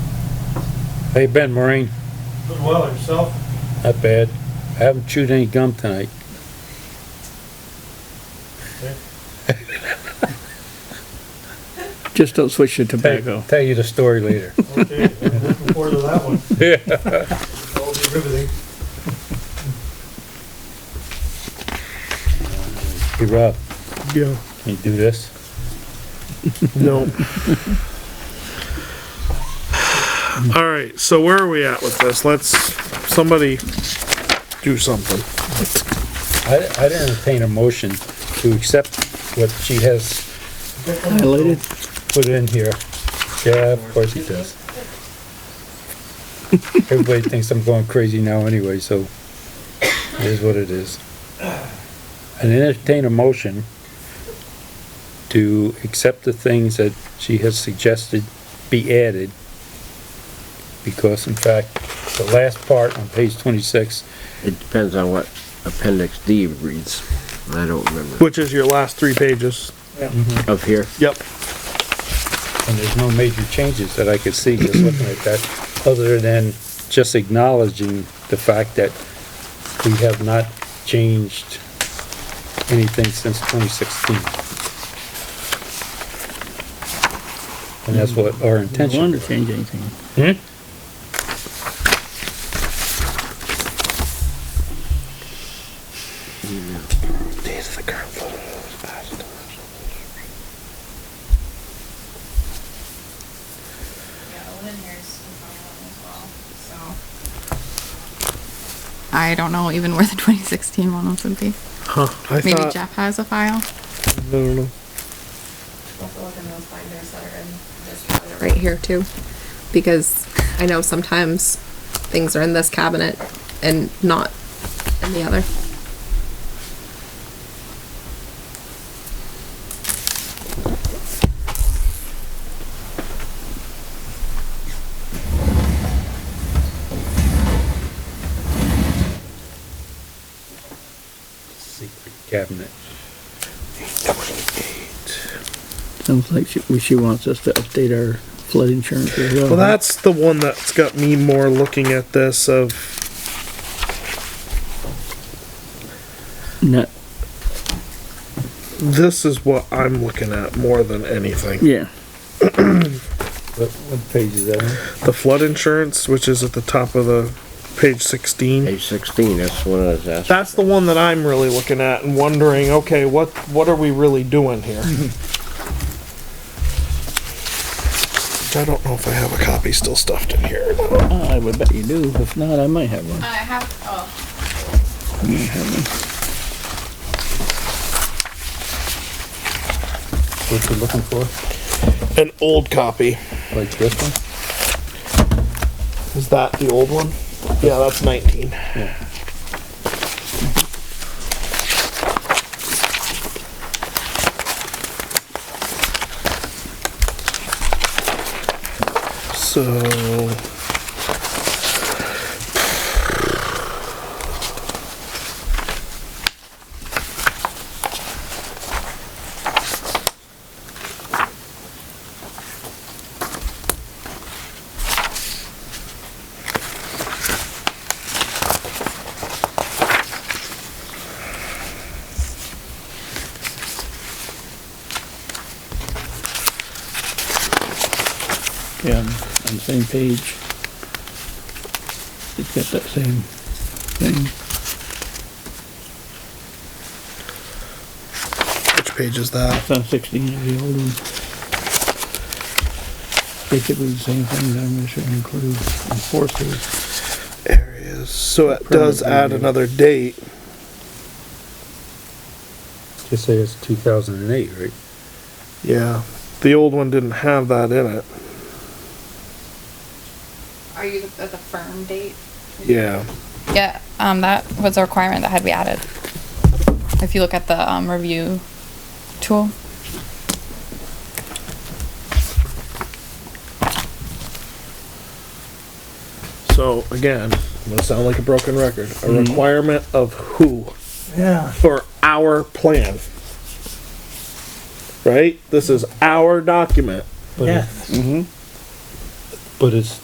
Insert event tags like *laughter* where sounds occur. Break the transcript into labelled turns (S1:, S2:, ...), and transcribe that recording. S1: Hey, Ben Marine,
S2: Good well yourself.
S1: not bad. I haven't chewed any gum tonight.
S3: Just don't switch to
S1: Tell
S3: tobacco.
S1: tell you the story later.
S4: *laughs*
S2: Okay, I'm looking forward to that one.
S1: Yeah.
S2: That'll be riveting.
S1: Hey, Rob,
S4: Yeah,
S1: can you do this?
S4: no. All right, so where are we at with this? Let's, somebody do something.
S1: I, I'd entertain a motion to accept what she has
S3: Highlighted,
S1: put in here. Yeah, of course he does. Everybody thinks I'm going crazy now anyway, so it is what it is. And entertain a motion to accept the things that she has suggested be added. Because in fact, the last part on page twenty-six,
S5: It depends on what appendix D reads. I don't remember.
S4: Which is your last three pages.
S5: Up here,
S4: Yep.
S1: and there's no major changes that I could see just looking at that, other than just acknowledging the fact that we have not changed anything since twenty sixteen. And that's what our
S3: I
S1: intention.
S3: wanted to change anything.
S1: Hmm?
S6: Yeah, Owen here's some problem as well, so. I don't know even where the *laughs* 2016 one would be.
S4: Huh, I
S6: Maybe
S4: thought, I
S6: Jeff has a file.
S4: don't know.
S6: Right here too, because I know sometimes things are in this cabinet and not in the other.
S1: Secret cabinet.
S3: Sounds like she, she wants us to update our flood insurance as well.
S4: Well, that's the one that's got me more looking at this of,
S3: Not,
S4: this is what I'm looking at more than anything.
S3: yeah,
S1: What, what page is that on?
S4: The flood insurance, which is at the top of the page sixteen.
S5: page sixteen, that's what I was asking.
S4: That's the one that I'm really looking at and wondering, okay, what, what are we really doing here? Which I don't know if I have a copy still stuffed in here.
S3: Ah, I would bet you do. If not, I might have one.
S6: I have, oh,
S1: What you looking for?
S4: An old copy.
S1: Like this one?
S4: Is that the old one? Yeah, that's nineteen. So.
S3: Yeah, on on the same page. It's got that same thing.
S4: Which page is that?
S3: It's on sixteen of the old one. Basically the same thing that I'm gonna should include enforcers.
S4: Areas. So it does add another date.
S1: Just say it's two thousand and eight, right?
S4: Yeah. The old one didn't have that in it.
S6: are you at the firm date?
S4: Yeah.
S6: Yeah, um, that was a requirement that had to be added. If you look at the, um, review tool.
S4: So again, I'm gonna sound like a broken record. A requirement of who
S2: Yeah.
S4: for our plan, right? This is our document.
S1: But it- But it's